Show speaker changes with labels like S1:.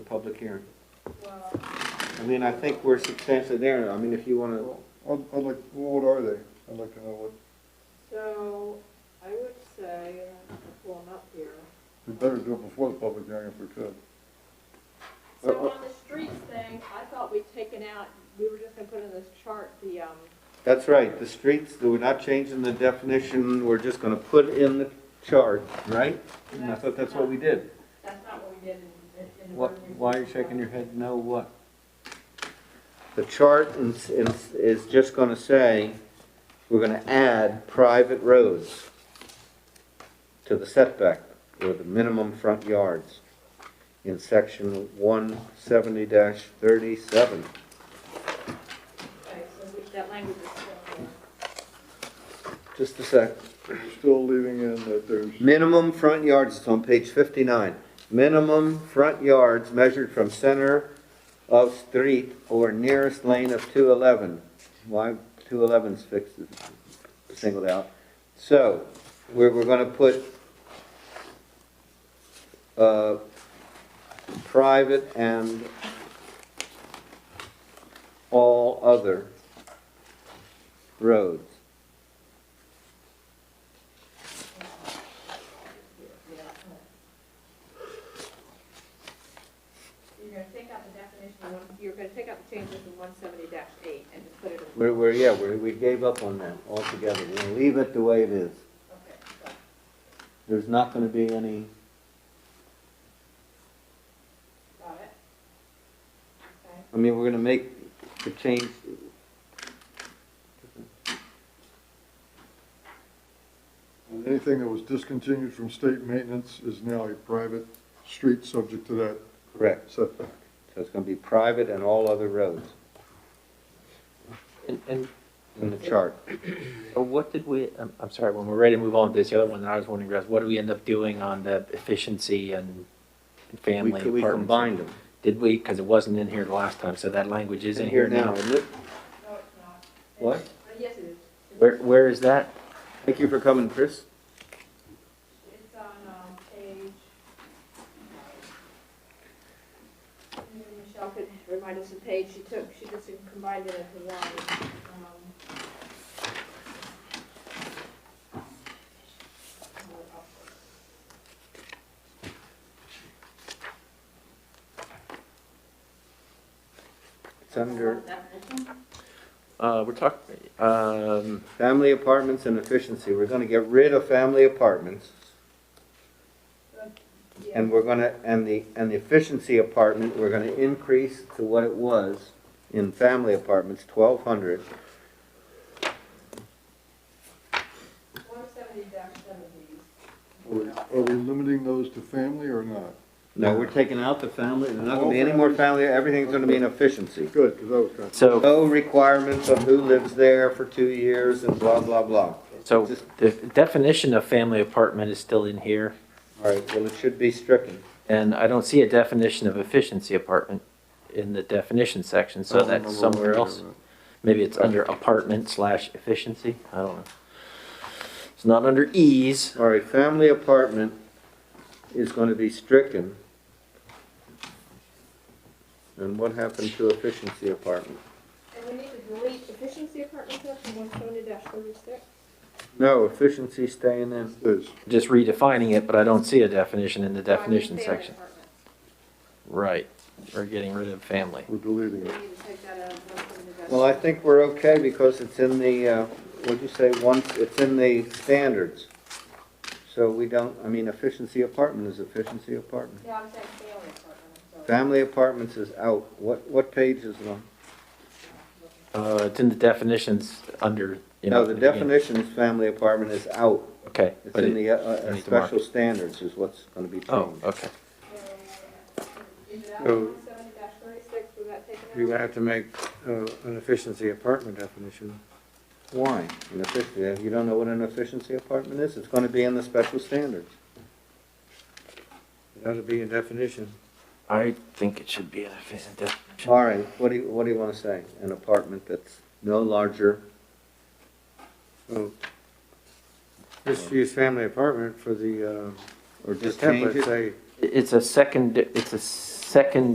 S1: public hearing.
S2: Well,
S1: I mean, I think we're substantially there, I mean, if you wanna,
S3: I'd, I'd like, what are they? I'd like to know what,
S2: so I would say, I'm pulling up here.
S3: we better do it before the public hearing if we could.
S2: So
S1: Uh, uh.
S2: on the streets thing, I thought we'd taken out, we were just gonna put in this chart, the, um,
S1: that's right, the streets, we're not changing the definition, we're just gonna put in the chart, right? And I thought that's what we did.
S2: that's not what we did in, in the.
S1: What,
S2: ordinance.
S1: why are you shaking your head, no what? The chart is, is, is just gonna say, we're gonna add private roads to the setback, or the minimum front yards, in section one seventy thirty-seven.
S2: Okay, so we- that language is still there.
S1: Just a sec.
S3: We're Still leaving in that there's,
S1: Minimum front yards, it's on page fifty-nine. Minimum front yards measured from center of street or nearest lane of two eleven. Why, two eleven's fixed, singled out. So, we're, we're gonna put, uh, private and all other roads.
S2: You're gonna take out the definition of one, you're gonna take out the changes in one seventy eight and just put it in.
S1: We're, we're, yeah, we, we gave up on that altogether. We're gonna leave it the way it is.
S2: Okay, so,
S1: There's not gonna be any,
S2: got it? Okay,
S1: I mean, we're gonna make the change.
S3: anything that was discontinued from state maintenance is now a private street subject to that
S1: Correct.
S3: setback.
S1: So it's gonna be private and all other roads
S4: And, and
S1: in the chart.
S4: uh, what did we, I'm, I'm sorry, when we're ready to move on to this other one, that I was wondering, Russ, what did we end up doing on the efficiency and and
S1: We,
S4: family
S1: we
S4: apartments?
S1: combined them.
S4: Did we, because it wasn't in here the last time, so that language is
S1: It's
S4: in here now.
S1: isn't it?
S2: no, it's not.
S1: What?
S2: Uh, Yes, it is. It's-
S4: Where, where is that?
S1: Thank you for coming, Chris.
S2: It's on, um, page. Maybe Michelle could remind us of page she took, she just combined it into one. um,
S1: It's under
S2: Definition?
S4: Uh, we're talking, um,
S1: family apartments and efficiency. We're gonna get rid of family apartments.
S2: Yeah,
S1: And we're gonna, and the, and the efficiency apartment, we're gonna increase to what it was in family apartments, twelve hundred.
S2: one seventy dash seventy.
S3: Are we, are we limiting those to family or not?
S1: No, we're taking out the family, there's not gonna be any more family, everything's gonna be an efficiency.
S3: Good, because I was kind of,
S4: so,
S1: No requirements of who lives there for two years and blah, blah, blah.
S4: so the definition of family apartment is still in here,
S1: All right, well, it should be stricken.
S4: and I don't see a definition of efficiency apartment in the definition section, so that's somewhere else. Maybe it's under apartment slash efficiency, I don't know. It's not under ease,
S1: All right, family apartment is gonna be stricken. And what happened to efficiency apartment?
S2: And we need to delete efficiency apartment section one seventy dash thirty-six.
S1: No, efficiency staying in.
S3: Is,
S4: just redefining it, but I don't see a definition in the definition section. Right, we're getting rid of family.
S3: we're
S2: We
S3: deleting
S2: need
S3: it.
S2: to take that out of one seventy dash.
S1: Well, I think we're okay because it's in the, uh, what'd you say, once, it's in the standards. So we don't, I mean, efficiency apartment is efficiency apartment.
S2: Yeah, I'm saying family apartment, I'm sorry.
S1: Family apartments is out. What, what page is it on?
S4: Uh, it's in the definitions under, you know.
S1: No, the
S4: beginning.
S1: definition is family apartment is out.
S4: Okay,
S1: It's
S4: but
S1: in
S4: it,
S1: the, uh, uh,
S4: need to mark
S1: special standards is what's gonna be
S4: oh,
S1: changed.
S4: okay.
S2: Is it out
S5: So-
S2: one seventy dash thirty-six, was that taken out?
S5: You're gonna have to make uh, an efficiency apartment definition.
S1: Why? An efficiency, if you don't know what an efficiency apartment is, it's gonna be in the special standards.
S5: That'll be a definition.
S4: I think it should be in a definition.
S1: All right, what do you, what do you wanna say? An apartment that's no larger,
S5: So Just use family apartment for the, uh,
S1: or
S5: the
S1: just change it?
S5: template, say
S4: It's a second, it's a second